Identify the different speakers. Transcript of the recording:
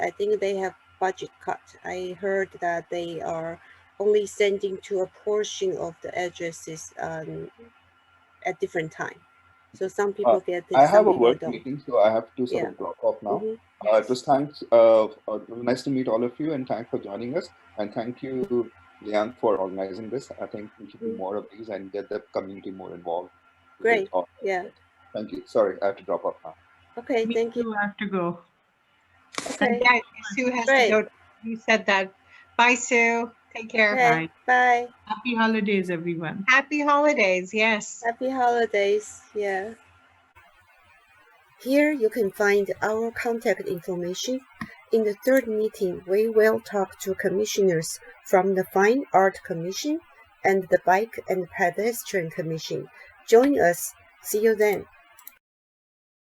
Speaker 1: I think they have budget cut. I heard that they are only sending to a portion of the addresses um, at different time. So some people get it.
Speaker 2: Uh, I
Speaker 1: some
Speaker 2: have a
Speaker 1: people
Speaker 2: work
Speaker 1: don't.
Speaker 2: meeting, so I have to sort
Speaker 1: Yeah.
Speaker 2: of drop off now.
Speaker 1: Mhm.
Speaker 2: Uh, it was thanks. Uh, uh, nice to meet all of you, and thanks for joining us. And thank you, Liang, for organizing this. I think we should do
Speaker 1: Mm.
Speaker 2: more of these and get the community more involved. with
Speaker 1: Great.
Speaker 2: all-
Speaker 1: Yeah.
Speaker 2: Thank you. Sorry, I have to drop off now.
Speaker 1: Okay.
Speaker 3: Me
Speaker 1: Thank you.
Speaker 3: too, I have to go.
Speaker 1: Okay.
Speaker 4: Yeah, Sue has
Speaker 1: Great.
Speaker 4: to go. You said that. Bye, Sue. Take care.
Speaker 1: Okay. Bye.
Speaker 3: Happy holidays, everyone.
Speaker 4: Happy holidays. Yes.
Speaker 1: Happy holidays. Yeah. Here you can find our contact information. In the third meeting, we will talk to commissioners from the Fine Art Commission and the Bike and Pedestrian Commission. Join us. See you then.